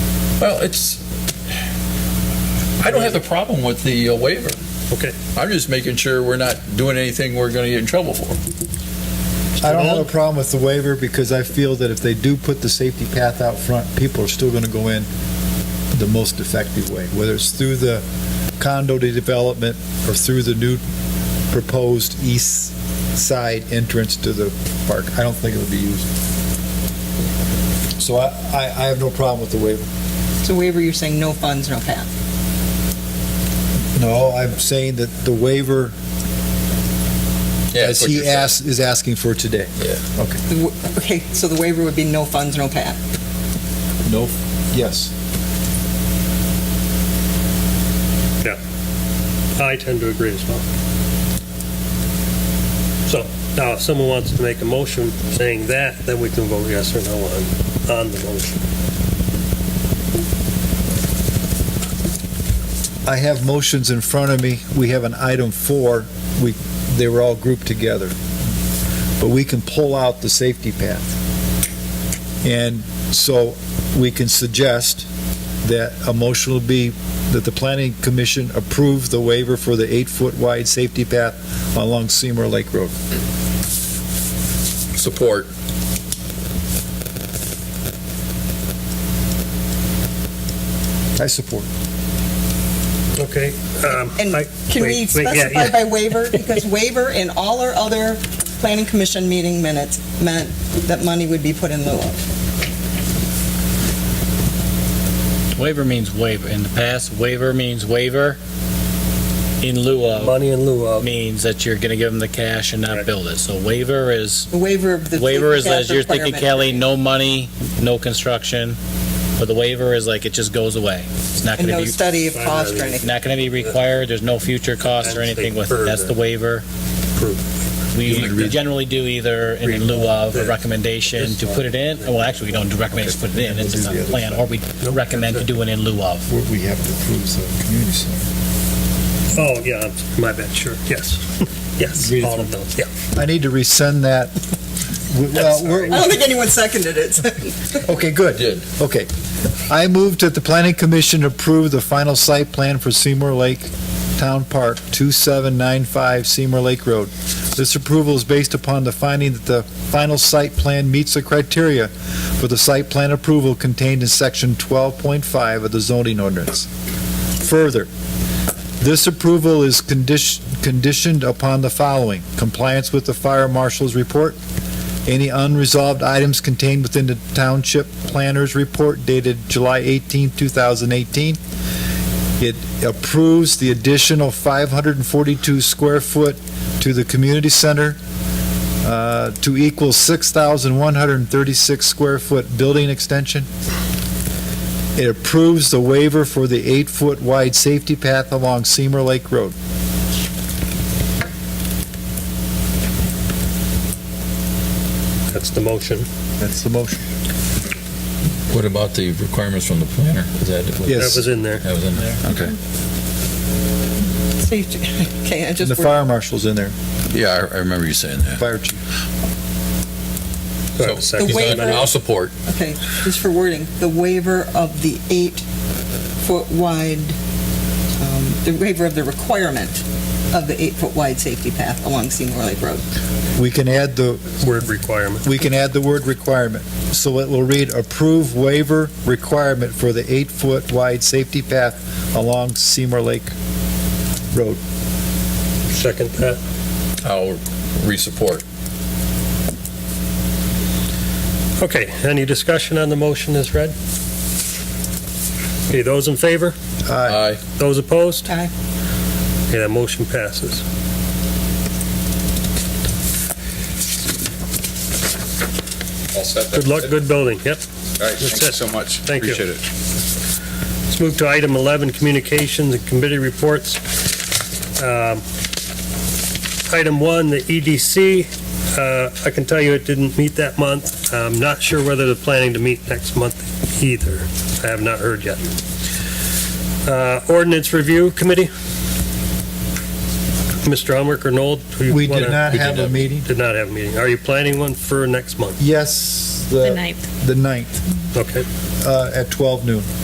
Well, it's, I don't have the problem with the uh, waiver. Okay. I'm just making sure we're not doing anything we're going to get in trouble for. I don't have a problem with the waiver because I feel that if they do put the safety path out front, people are still going to go in the most effective way, whether it's through the condo development or through the new proposed east side entrance to the park. I don't think it would be used. So I, I I have no problem with the waiver. So waiver, you're saying no funds, no path. No, I'm saying that the waiver, Yeah, as that's what he you're saying. asks, is asking for today. The wa- Okay, so the waiver would be no funds, no path. No. Yes. I tend to agree as well. So now if someone wants to make a motion saying that, then we can vote yes or no on, on the motion. I have motions in front of me. We have an item four. We, they were all grouped together. But we can pull out the safety path. And so we can suggest that a motion will be that the planning commission approve the waiver for the eight-foot wide safety path along Seymour Lake Road. Support. I support. Okay. um, And I- Can we wait, wait, yeah, specify yeah. by waiver? Because waiver in all our other planning commission meeting minutes meant that money would be put in lieu of. Waiver means waiver. In the past, waiver means waiver. In lieu of Money in lieu of. means that you're going to give them the cash and not build it. So waiver is, The waiver of the. waiver is as you're thinking, requirement. Kelly, no money, no construction. But the waiver is like, it just goes away. It's not And going to no be, study of cost or anything. not going to be required. There's no future cost or I'd say anything with it. That's the further. waiver. We we generally do either in lieu of a recommendation to put it in, well, actually, we don't do recommend to put it in, it's in the plan, or we recommend to do it in lieu of. We have to approve the community center. Oh, yeah, my bad, sure, yes. Yes, Read it all of those, yeah. I need to rescind that. We- Well, we're, I don't think anyone seconded it. Okay, good. Did. Okay. I moved that the planning commission approve the final site plan for Seymour Lake Town Park, 2795 Seymour Lake Road. This approval is based upon the finding that the final site plan meets the criteria for the site plan approval contained in section 12.5 of the zoning ordinance. Further, this approval is condition- conditioned upon the following: compliance with the fire marshal's report, any unresolved items contained within the Township Planner's Report dated July 18, 2018. It approves the additional 542 square foot to the community center uh, to equal 6,136 square foot building extension. It approves the waiver for the eight-foot wide safety path along Seymour Lake Road. That's the motion. That's the motion. What about the requirements from the planner? Is that? Yes. That was in there. That was in there? Okay. Safety, okay, I And the just, fire marshal's in there, Yeah, I I remember you saying that. fire chief. Do I have a The second? waiver- I'll support. okay, just for wording, the waiver of the eight-foot wide, um, the waiver of the requirement of the eight-foot wide safety path along Seymour Lake Road. We can add the Word requirement. we can add the word requirement. So it will read approve waiver requirement for the eight-foot wide safety path along Seymour Lake Road. Second that. I'll re-support. Okay, any discussion on the motion as read? Okay, those in favor? Aye. Aye. Those opposed? Aye. Okay, that motion passes. All set. Good luck, good building, yep. All right, That's thank you it. so much. Thank you. Appreciate it. Let's move to item 11, communications and committee reports. Um, Item 1, the EDC, uh, I can tell you it didn't meet that month. I'm not sure whether they're planning to meet next month either. I have not heard yet. Uh, Ordinance Review Committee? Mr. Elmer or Noel? do you We wanna- did not We have a meeting. Did not have a meeting. Are you planning one for next month? Yes, The the, ninth. the ninth, Okay. uh, at 12 noon.